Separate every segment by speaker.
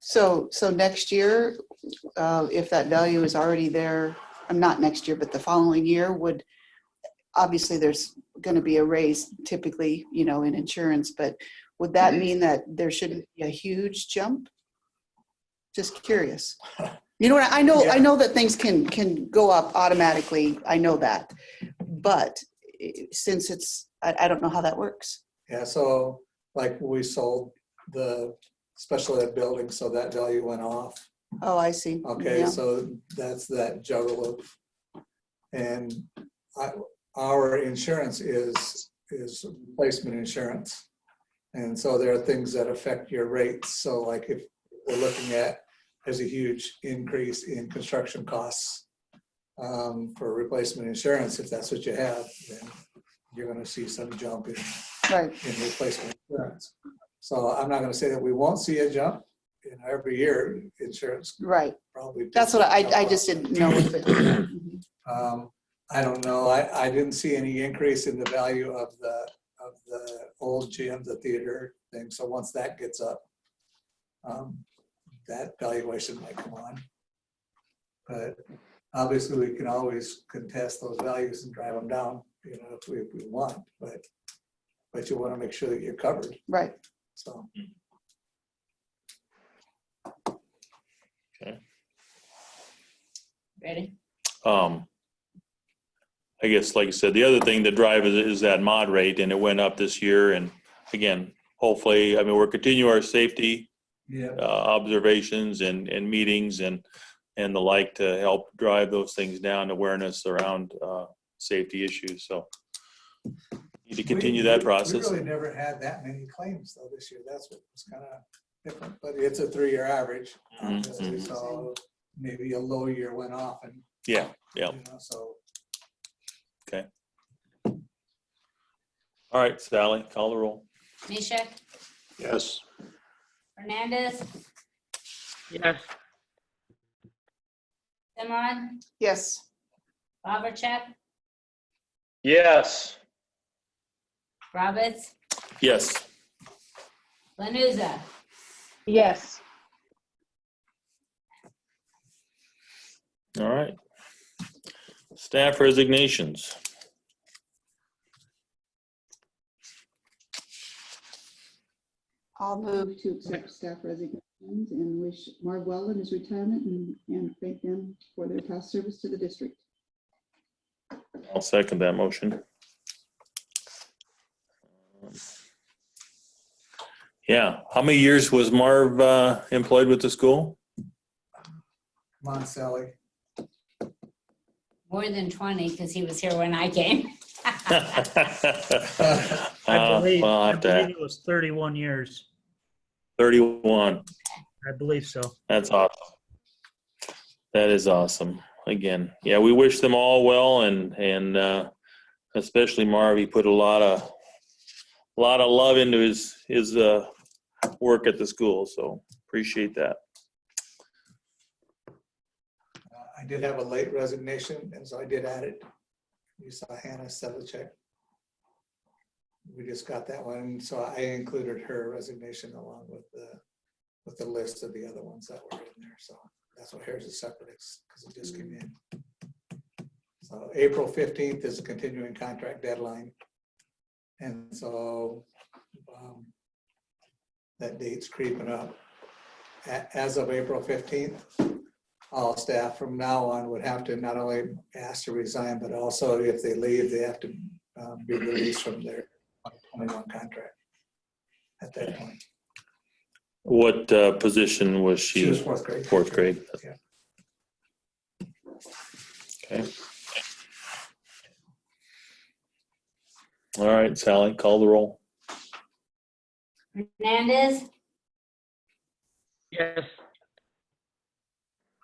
Speaker 1: So, so next year, uh, if that value is already there, um, not next year, but the following year would, obviously, there's going to be a raise typically, you know, in insurance, but would that mean that there shouldn't be a huge jump? Just curious. You know what, I know, I know that things can, can go up automatically, I know that. But eh, since it's, I, I don't know how that works.
Speaker 2: Yeah, so like we sold the special ed building, so that value went off.
Speaker 1: Oh, I see.
Speaker 2: Okay,
Speaker 1: Yeah.
Speaker 2: so that's that juggle of, and I, our insurance is, is replacement insurance. And so there are things that affect your rates. So like if we're looking at, there's a huge increase in construction costs um, for replacement insurance, if that's what you have, then you're gonna see some jump in
Speaker 1: Right,
Speaker 2: in replacement insurance. So I'm not gonna say that we won't see a jump. You know, every year, insurance
Speaker 1: right.
Speaker 2: probably.
Speaker 1: That's what I, I just didn't know. if it-
Speaker 2: Um, I don't know. I, I didn't see any increase in the value of the, of the old gym, the theater thing. So once that gets up, um, that valuation might come on. But obviously, we can always contest those values and drive them down, you know, if we, if we want, but, but you want to make sure that you're covered,
Speaker 1: Right,
Speaker 2: so.
Speaker 3: Ready?
Speaker 4: Um, I guess, like I said, the other thing that drive is, is that mod rate, and it went up this year, and again, hopefully, I mean, we're continuing our safety
Speaker 2: Yeah.
Speaker 4: uh, observations and, and meetings and, and the like to help drive those things down, awareness around uh, safety issues, so. Need to continue that process.
Speaker 2: We really never had that many claims though this year. That's what was kind of different, but it's a three-year average.
Speaker 4: Mhm,
Speaker 2: obviously,
Speaker 3: mhm.
Speaker 2: So maybe a low year went off and.
Speaker 4: Yeah, yeah.
Speaker 2: you know, So,
Speaker 4: All right, Sally, call the roll.
Speaker 3: Mishak?
Speaker 4: Yes.
Speaker 3: Hernandez?
Speaker 5: Yes,
Speaker 3: Simon?
Speaker 1: yes,
Speaker 3: Bobercheck?
Speaker 6: Yes,
Speaker 3: Roberts?
Speaker 4: Yes.
Speaker 3: Lanuza?
Speaker 7: Yes,
Speaker 4: All right. Staff resignations.
Speaker 1: I'll move to accept staff resignations and wish Marv well in his retirement and, and thank them for their past service to the district.
Speaker 4: I'll second that motion. Yeah, how many years was Marv uh, employed with the school?
Speaker 2: come on, Sally.
Speaker 3: More than 20, because he was here when I came.
Speaker 4: Uh,
Speaker 5: I believe,
Speaker 4: well, I'll
Speaker 5: I
Speaker 4: have to-
Speaker 5: believe it was 31 years.
Speaker 4: 31,
Speaker 5: I believe so.
Speaker 4: that's awesome. That is awesome. Again, yeah, we wish them all well and, and uh, especially Marv, he put a lot of, a lot of love into his, his uh, work at the school, so appreciate that.
Speaker 2: Uh, I did have a late resignation and so I did add it. You saw Hannah Sedlacek. We just got that one, so I included her resignation along with the, with the list of the other ones that were in there, so that's why here's a separate, because it just came in. So April fifteenth is a continuing contract deadline. And so um, that date's creeping up. A- As of April fifteenth, all staff from now on would have to not only ask to resign, but also if they leave, they have to um, be released from their 21 contract at that point.
Speaker 4: What uh, position was
Speaker 2: She was
Speaker 4: she?
Speaker 2: fourth grade.
Speaker 4: Fourth grade.
Speaker 2: Yeah.
Speaker 4: Okay. All right, Sally, call the roll.
Speaker 3: Hernandez?
Speaker 5: Yes,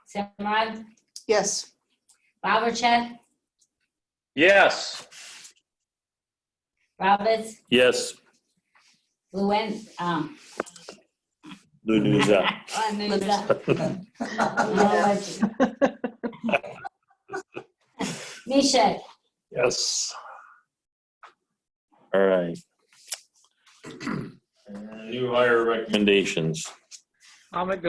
Speaker 3: Simon?
Speaker 1: Yes,
Speaker 3: Bobercheck?
Speaker 6: yes,
Speaker 3: Roberts?
Speaker 4: Yes.
Speaker 3: Luen? um,
Speaker 4: Lou Nuza.
Speaker 3: Lanuza? Mishak?
Speaker 4: Yes. All right. Uh, New hire recommendations.
Speaker 5: I'll make the